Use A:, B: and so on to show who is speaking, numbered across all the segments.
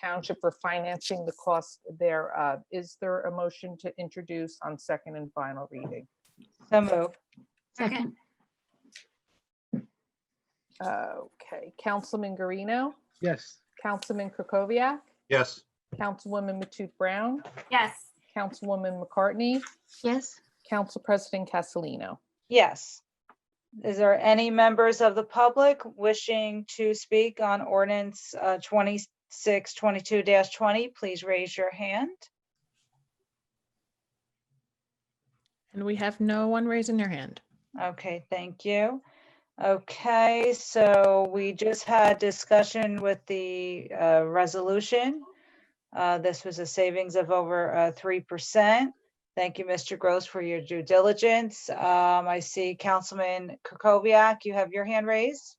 A: township for financing the cost thereof. Is there a motion to introduce on second and final reading?
B: So moved.
C: Second,
A: Okay, Councilman Garino,
D: Yes.
A: Councilman Krokoviac,
D: Yes.
A: Councilwoman Matute Brown,
C: yes.
A: Councilwoman McCartney,
C: Yes.
A: Council President Castellino.
B: Yes. Is there any members of the public wishing to speak on ordinance uh, twenty-six twenty-two twenty? Please raise your hand.
E: And we have no one raising their hand.
B: Okay, thank you. Okay, so we just had discussion with the uh, resolution. Uh, This was a savings of over uh, three percent. Thank you, Mr. Gross, for your due diligence. Um, I see Councilman Kukoviac, you have your hand raised.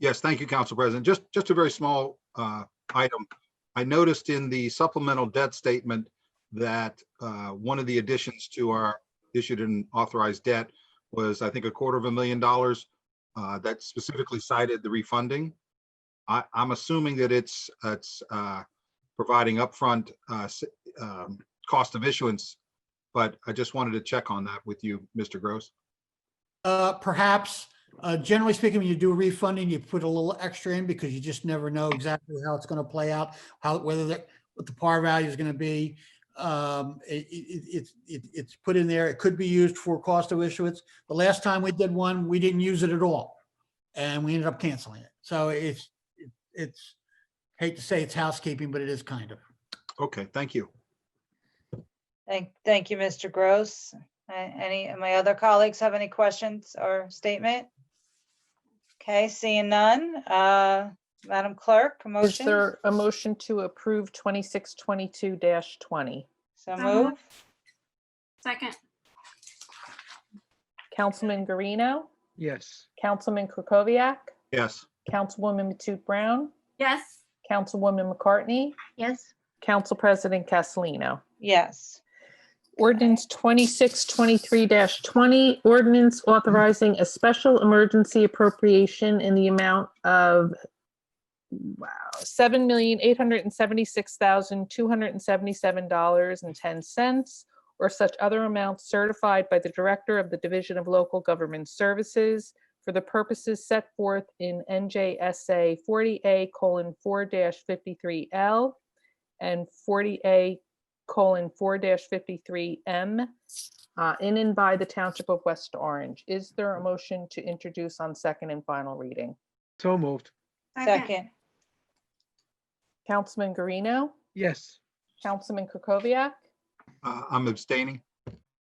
F: Yes, thank you, Council President. Just, just a very small uh, item. I noticed in the supplemental debt statement that uh, one of the additions to our issued and authorized debt was, I think, a quarter of a million dollars uh, that specifically cited the refunding. I, I'm assuming that it's, it's uh, providing upfront uh, s- um, cost of issuance, but I just wanted to check on that with you, Mr. Gross.
G: Uh, perhaps, uh, generally speaking, when you do refunding, you put a little extra in because you just never know exactly how it's gonna play out, how, whether the, what the par value is gonna be. Um, it, it, it's, it- it's put in there. It could be used for cost of issuance. The last time we did one, we didn't use it at all. And we ended up canceling it. So it's, it's, hate to say it's housekeeping, but it is kind of.
F: Okay, thank you.
B: Thank, thank you, Mr. Gross. A- Any, of my other colleagues have any questions or statement? Okay, seeing none. Uh, Madam Clerk,
A: Is
B: motion?
A: there a motion to approve 2622-20?
B: So
C: So
B: move.
C: moved. Second,
A: Councilman Garino,
D: Yes.
A: Councilman Krokoviac,
F: Yes,
A: Councilwoman Matute Brown,
C: yes.
A: Councilwoman McCartney,
C: Yes.
A: Council President Castellino.
B: Yes.
A: Ordinance twenty-six twenty-three twenty, ordinance authorizing a special emergency appropriation in the amount of wow, seven million eight hundred and seventy-six thousand two hundred and seventy-seven dollars and ten cents or such other amounts certified by the Director of the Division of Local Government Services for the purposes set forth in NJSA forty A colon four fifty-three L and forty A colon four fifty-three M uh, in and by the Township of West Orange. Is there a motion to introduce on second and final reading?
D: So moved.
B: Second,
A: Councilman Garino,
D: Yes.
A: Councilman Kukoviac,
F: uh, I'm abstaining.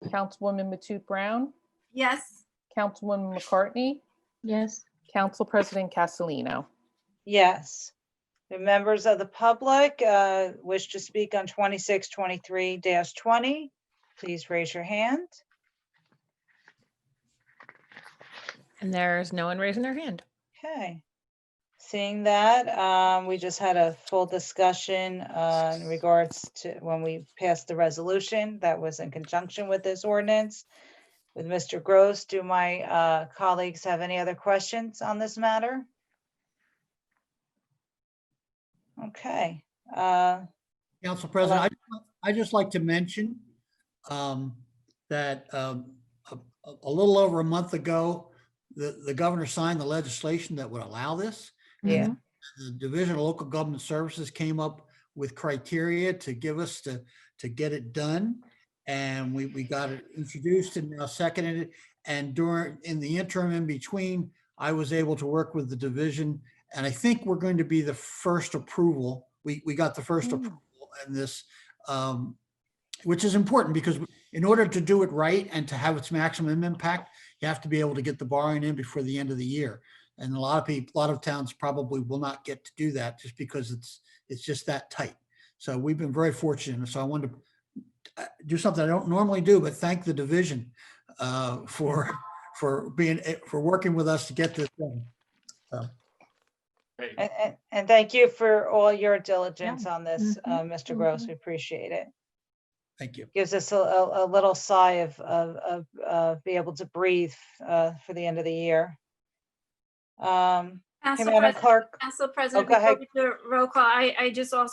A: Councilwoman Matute Brown,
C: Yes.
A: Councilwoman McCartney,
E: Yes.
A: Council President Castellino.
B: yes. The members of the public uh, wish to speak on twenty-six, twenty-three twenty, please raise your hand.
E: And there's no one raising their hand.
B: Okay. Seeing that, um, we just had a full discussion uh, in regards to when we passed the resolution that was in conjunction with this ordinance. With Mr. Gross, do my uh, colleagues have any other questions on this matter? Okay, uh,
G: Council President, I, I just like to mention um, that um, a, a- a little over a month ago, the, the governor signed the legislation that would allow this.
A: Yeah.
E: Mhm.
G: The Division of Local Government Services came up with criteria to give us to, to get it done. And we, we got it introduced and now seconded it. And during, in the interim in between, I was able to work with the division. And I think we're going to be the first approval. We, we got the first
A: Mm.
G: approval in this, um, which is important because in order to do it right and to have its maximum impact, you have to be able to get the borrowing in before the end of the year. And a lot of people, a lot of towns probably will not get to do that just because it's, it's just that tight. So we've been very fortunate. So I wanted to uh, do something I don't normally do, but thank the division uh, for, for being, eh, for working with us to get this done.
B: and, and- and thank you for all your diligence on this, uh, Mr. Gross. We appreciate it.
G: Thank you.
B: gives us a, a, a little sigh of, of, of, uh, be able to breathe, uh, for the end of the year. Um,
C: Council
B: Madam
C: Pres-
B: Clerk?
C: Council President,
B: go
C: before
B: Oh, ahead.
C: we do a roll call, I, I just also